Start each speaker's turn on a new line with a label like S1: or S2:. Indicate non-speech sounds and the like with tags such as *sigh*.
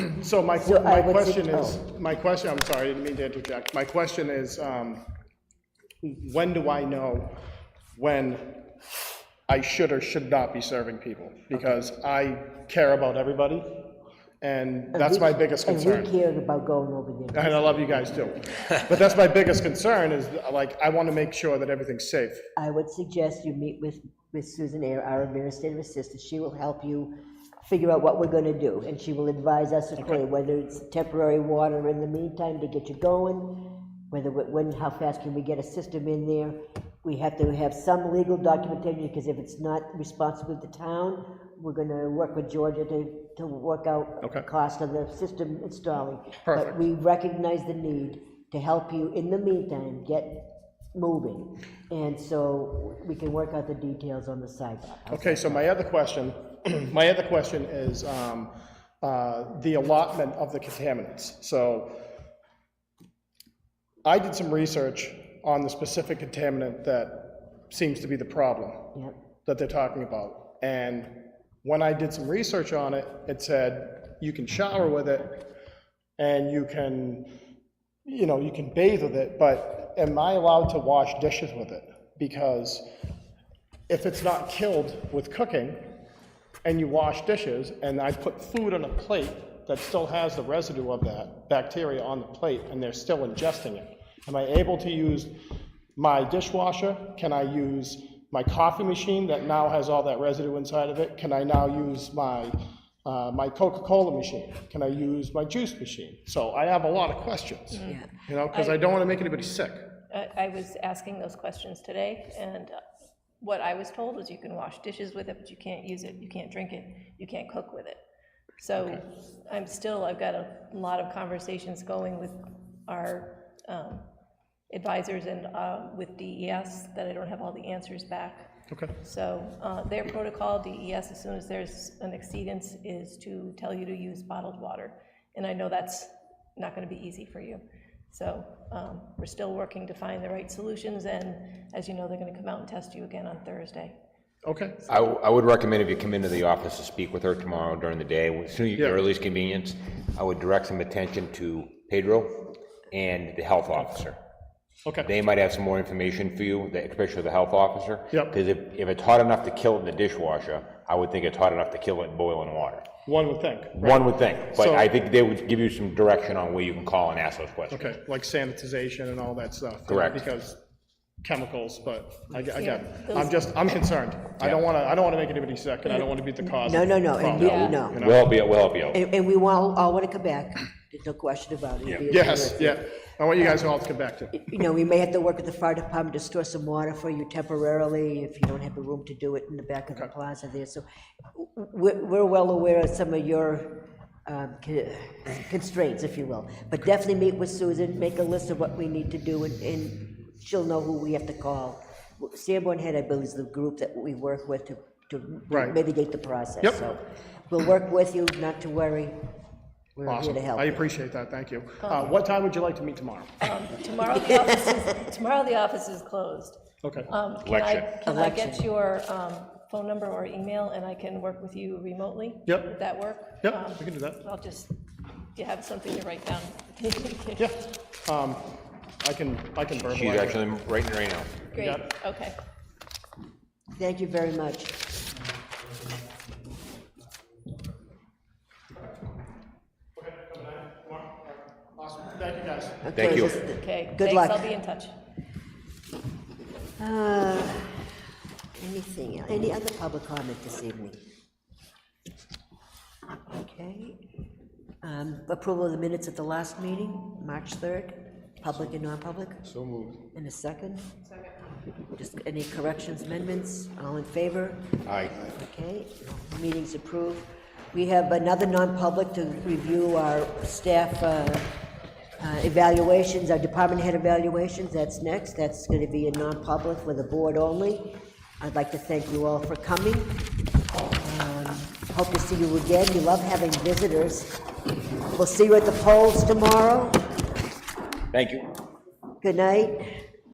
S1: So my,
S2: So I
S1: my
S2: would say-
S1: question is, my question, I'm sorry, I didn't mean to interject. My question is, um, when do I know when I should or should not be serving people? Because I care about everybody, and that's my biggest concern.
S2: And we cared about going over there.
S1: And I love you guys too. But that's my biggest concern is like, I want to make sure that everything's safe.
S2: I would suggest you meet with, with Susan Air, our administrative assistant. She will help you figure out what we're gonna do, and she will advise us accordingly, whether it's temporary water in the meantime to get you going, whether, wh- when, how fast can we get a system in there? We have to have some legal documentation, because if it's not responsible to the town, we're gonna work with Georgia to, to work out
S1: Okay.
S2: the cost of the system installing. But
S1: Perfect.
S2: we recognize the need to help you in the meantime get moving. And so we can work out the details on the sidewalk.
S1: Okay, so my other question, *clears throat* my other question is um, uh, the allotment of the contaminants. So I did some research on the specific contaminant that seems to be the problem
S2: Yep,
S1: that they're talking about. And when I did some research on it, it said you can shower with it and you can, you know, you can bathe with it, but am I allowed to wash dishes with it? Because if it's not killed with cooking and you wash dishes and I put food on a plate that still has the residue of that bacteria on the plate and they're still ingesting it, am I able to use my dishwasher? Can I use my coffee machine that now has all that residue inside of it? Can I now use my, uh, my Coca-Cola machine? Can I use my juice machine? So I have a lot of questions, you know, because I don't want to make anybody sick.
S3: I I was asking those questions today, and what I was told was you can wash dishes with it, but you can't use it, you can't drink it, you can't cook with it. So I'm still, I've got a lot of conversations going with our um, advisors and uh, with DES, that I don't have all the answers back.
S1: Okay.
S3: So uh, their protocol, DES, as soon as there's an exceedance, is to tell you to use bottled water. And I know that's not going to be easy for you. So um, we're still working to find the right solutions, and as you know, they're going to come out and test you again on Thursday.
S1: Okay,
S4: I, w- I would recommend if you come into the office to speak with her tomorrow during the day, as soon as your earliest convenience, I would direct some attention to Pedro and the health officer.
S1: okay.
S4: They might have some more information for you, the- especially the health officer.
S1: Yep.
S4: Because if, if it's hot enough to kill it in the dishwasher, I would think it's hot enough to kill it in boiling water.
S1: One would think, right?
S4: One would think, but
S1: So-
S4: I think they would give you some direction on where you can call and ask those questions.
S1: Okay, like sanitization and all that stuff. you know,
S4: Correct.
S1: Because chemicals, but I, I get it.
S3: Yeah,
S1: I'm just, I'm concerned. I don't want to, I don't want to make anybody sick, and I don't want to be the cause.
S2: No,
S1: of
S2: no,
S1: the
S2: no, and
S1: problem.
S2: you- you know.
S4: We'll help you, we'll help you out.
S2: And, and we all, all want to come back, there's no question about it. It'd be a
S1: Yes,
S2: terrific-
S1: yeah. I want you guys all to come back to.
S2: You know, we may have to work with the fire department to store some water for you temporarily if you don't have the room to do it in the back of the plaza there. So we're, we're well aware of some of your um, co- constraints, if you will. But definitely meet with Susan, make a list of what we need to do, and- and she'll know who we have to call. Sanborn Head, I believe, is the group that we work with to, to
S1: Right.
S2: mitigate the process.
S1: Yep.
S2: So We'll work with you, not to worry. We're here
S1: Awesome.
S2: to help. Um,
S1: I appreciate that, thank you. Uh, What time would you like to meet tomorrow?
S3: Tomorrow, the office is, tomorrow, the office is closed.
S1: Okay,
S3: Um, Can I,
S4: Election.
S3: can I get
S2: Election.
S3: your um, phone number or email, and I can work with you remotely?
S1: Yep.
S3: Would that work?
S1: Yep,
S3: Um,
S1: we can do that.
S3: I'll just, do you have something to write down?
S1: yeah. Um, I can, I can verbalize.
S4: She's
S1: it.
S4: actually writing right now.
S3: *laughs* Great,
S1: got it.
S3: okay.
S2: Thank you very much.
S1: Awesome, thank you, guys.
S2: Okay,
S4: you.
S2: just-
S3: Okay.
S2: Good
S3: thanks,
S2: luck.
S3: I'll be in touch.
S2: Uh, Anything, el- any other public comment this evening? Okay. Um, Approval of the minutes at the last meeting, March 3rd, public and non-public? So moved. In a second? Second. Just any corrections, amendments, all in favor?
S4: Aye.
S2: Okay, meeting's approved. We have another non-public to review our staff uh, uh, evaluations, our department head evaluations, that's next. That's going to be a non-public with the board only. I'd like to thank you all for coming. Um, Hope to see you again, we love having visitors. We'll see you at the polls tomorrow.
S4: Thank you.
S2: Good night.